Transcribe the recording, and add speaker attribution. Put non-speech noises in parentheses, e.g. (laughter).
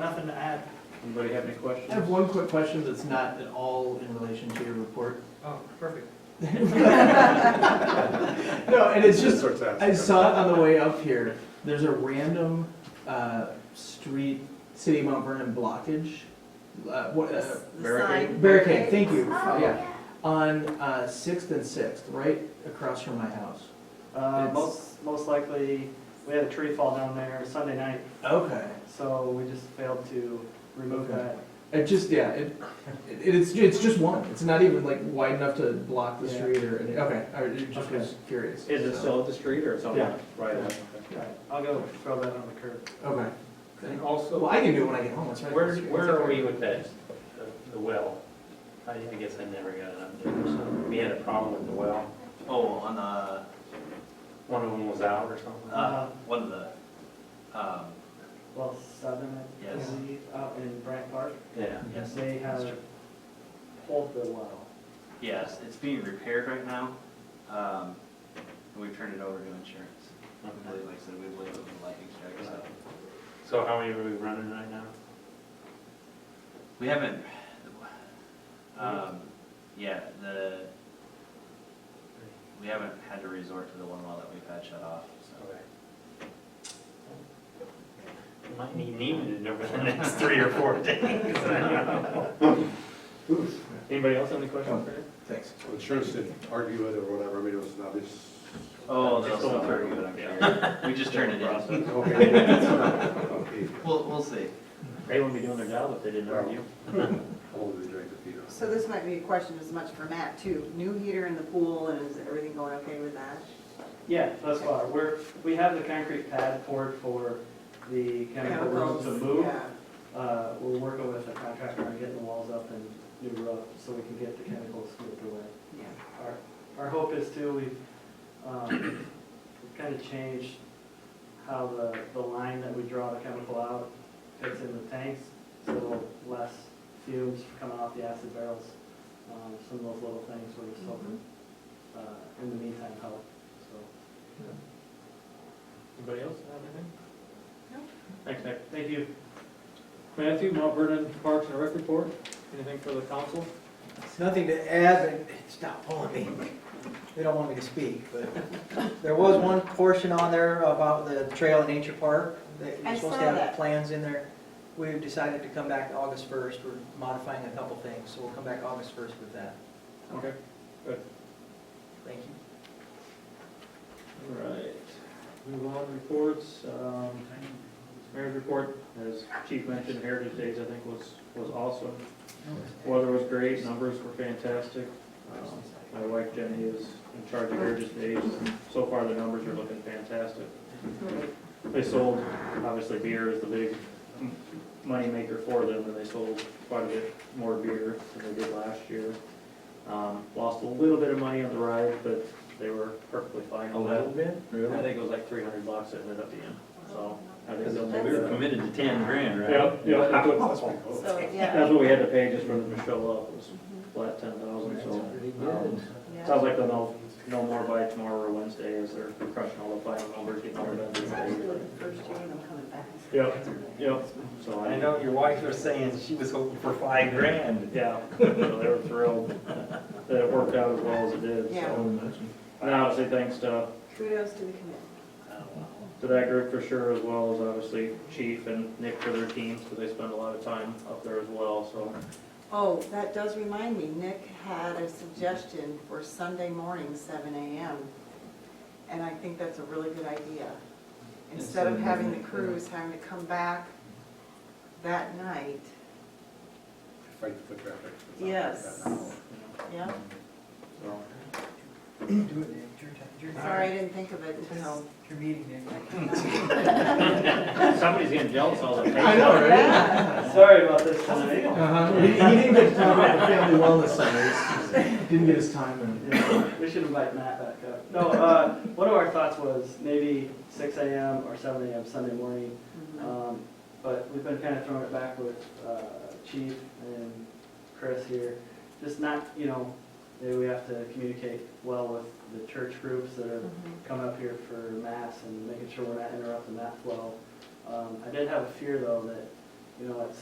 Speaker 1: nothing to add.
Speaker 2: Anybody have any
Speaker 3: I have
Speaker 2: questions?
Speaker 3: one quick question that's not at all in relation to your report.
Speaker 1: (laughs) Oh, perfect.
Speaker 3: No, and it's just,
Speaker 2: Sorts out.
Speaker 3: I saw it on the way up here. There's a random, uh, street, City of Mount Vernon blockage, uh, what, uh,
Speaker 2: barricade?
Speaker 3: barricade, thank you,
Speaker 4: Oh,
Speaker 3: yeah, on, uh, Sixth and Sixth, right across from my house.
Speaker 1: Uh, most, most likely, we had a tree fall down there Sunday night,
Speaker 3: Okay.
Speaker 1: so we just failed to remove
Speaker 3: Okay.
Speaker 1: that.
Speaker 3: It just, yeah, it, it, it's, it's just one, it's not even like wide enough to block the
Speaker 1: Yeah.
Speaker 3: street or, any- okay, I just was curious.
Speaker 2: Is it
Speaker 3: so.
Speaker 2: still at the street or something?
Speaker 1: Yeah.
Speaker 2: Right.
Speaker 1: Yeah.
Speaker 2: okay.
Speaker 1: Right, I'll go throw that on the curb.
Speaker 3: Okay.
Speaker 5: And
Speaker 3: Well,
Speaker 5: also,
Speaker 3: I can do it when I get home, that's right.
Speaker 5: where, where are we with that, the- the well? I I guess I never got an update or something. We had a problem with the well.
Speaker 6: Oh, on the,
Speaker 5: One of them was out or something.
Speaker 6: uh, one of the, um,
Speaker 1: Well, seven, I
Speaker 6: Yes.
Speaker 1: believe, out in Bryant Park,
Speaker 5: Yeah.
Speaker 6: yes,
Speaker 1: they have pulled the well.
Speaker 6: yes, it's being repaired right now. Um, and we've turned it over to insurance. I believe, like I said, we believe it was a lightning strike, so.
Speaker 5: So how many are we running right now?
Speaker 6: We haven't, um, yeah, the, we haven't had to resort to the one well that we've had shut off, so.
Speaker 5: Okay. Might need Neiman over the next three or four days. (laughs) I don't know. Anybody else have any questions for him?
Speaker 3: Thanks.
Speaker 7: Insurance didn't argue it or whatever, I mean, it was an obvious.
Speaker 6: Oh, they'll
Speaker 5: Just
Speaker 6: still
Speaker 5: don't
Speaker 6: argue it, I'm sure. We just turned it
Speaker 2: (laughs)
Speaker 6: in.
Speaker 7: Okay.
Speaker 6: We'll, we'll see.
Speaker 5: They wouldn't be doing their job if they didn't argue.
Speaker 7: Hold the drink if you don't.
Speaker 8: So this might be a question as much for Matt too. New heater in the pool and is everything going okay with that?
Speaker 1: Yeah, thus far, we're, we have the concrete pad poured for the chemical room
Speaker 8: Chemicals,
Speaker 1: to move.
Speaker 8: yeah.
Speaker 1: Uh, we're working with a contractor on getting the walls up and new roof, so we can get the chemicals moved away.
Speaker 8: Yeah.
Speaker 1: Our, our hope is too, we've, um, we've kind of changed how the, the line that we draw the chemical out fits in the tanks, so less fumes coming off the acid barrels. Um, some of those little things we're just hoping, uh, in the meantime, help, so,
Speaker 5: Anybody else have anything?
Speaker 8: No.
Speaker 5: Thanks, Nick.
Speaker 1: thank you.
Speaker 5: Matthew, Mount Vernon Parks and Rec report, anything for the council?
Speaker 9: It's nothing to add, but it's not pulling me. They don't want me to speak, but there was one portion on there about the trail and nature park that
Speaker 8: I
Speaker 9: you're supposed
Speaker 8: saw
Speaker 9: to have
Speaker 8: that.
Speaker 9: plans in there. We've decided to come back August 1st. We're modifying a couple things, so we'll come back August 1st with that.
Speaker 5: Okay.
Speaker 9: Thank you.
Speaker 5: All right, move on to reports, um, mayor's report, as chief mentioned, Heritage Days, I think, was, was awesome. Weather was great, numbers were fantastic. Um, My wife Jenny is in charge of Heritage Days, so far the numbers are looking fantastic. They sold, obviously beer is the big m- moneymaker for them, and they sold quite a bit more beer than they did last year. Um, Lost a little bit of money on the ride, but they were perfectly fine
Speaker 2: A
Speaker 5: on that.
Speaker 2: little bit?
Speaker 5: I think it was like three hundred bucks it ended up being, so. I think they'll
Speaker 2: We
Speaker 5: make
Speaker 2: were
Speaker 5: that.
Speaker 2: committed to ten grand, right?
Speaker 5: Yep, yep, that's what-
Speaker 8: So,
Speaker 5: that's
Speaker 8: yeah.
Speaker 5: what we had to pay just for them to show up, was flat ten thousand, so. um, Sounds like they'll know, know more by tomorrow or Wednesday as they're crushing all the final numbers, getting all the
Speaker 8: It's actually the
Speaker 5: vendors.
Speaker 8: first year I'm coming back.
Speaker 5: Yep, yep, so
Speaker 2: I
Speaker 5: I,
Speaker 2: know your wife was saying she was hoping for five grand.
Speaker 5: yeah, (laughs) so they were thrilled that it worked out as well as it did,
Speaker 8: Yeah.
Speaker 5: so. And obviously thanks to
Speaker 8: Kudos to the committee.
Speaker 5: to that group for sure, as well as obviously Chief and Nick for their teams, because they spend a lot of time up there as well,
Speaker 1: (laughs)
Speaker 5: so.
Speaker 8: Oh, that does remind me, Nick had a suggestion for Sunday morning, seven AM. And I think that's a really good idea. Instead of having the crews having to come back that night,
Speaker 7: Fight the foot traffic.
Speaker 8: Yes. yeah?
Speaker 5: so.
Speaker 9: Do it, Nick. It's your time- it's your time.
Speaker 8: Sorry, I didn't think of it
Speaker 9: It's
Speaker 8: until.
Speaker 9: it's your meeting, Nick.
Speaker 5: Somebody's getting jealous all the time.
Speaker 3: I know, right?
Speaker 1: (laughs)
Speaker 8: Yeah.
Speaker 1: Sorry about this tonight.
Speaker 3: Uh-huh. He he didn't get to talk about the family wellness center, didn't get his time in.
Speaker 1: Yeah, We should invite Matt back up. No, uh, one of our thoughts was maybe six AM or seven AM Sunday morning. Um, But we've been kind of throwing it back with uh, Chief and Chris here. Just not, you know, maybe we have to communicate well with the church groups that are
Speaker 8: Mhm.
Speaker 1: coming up here for mass and making sure we're not interrupting that flow. Um, I did have a fear though that you know, at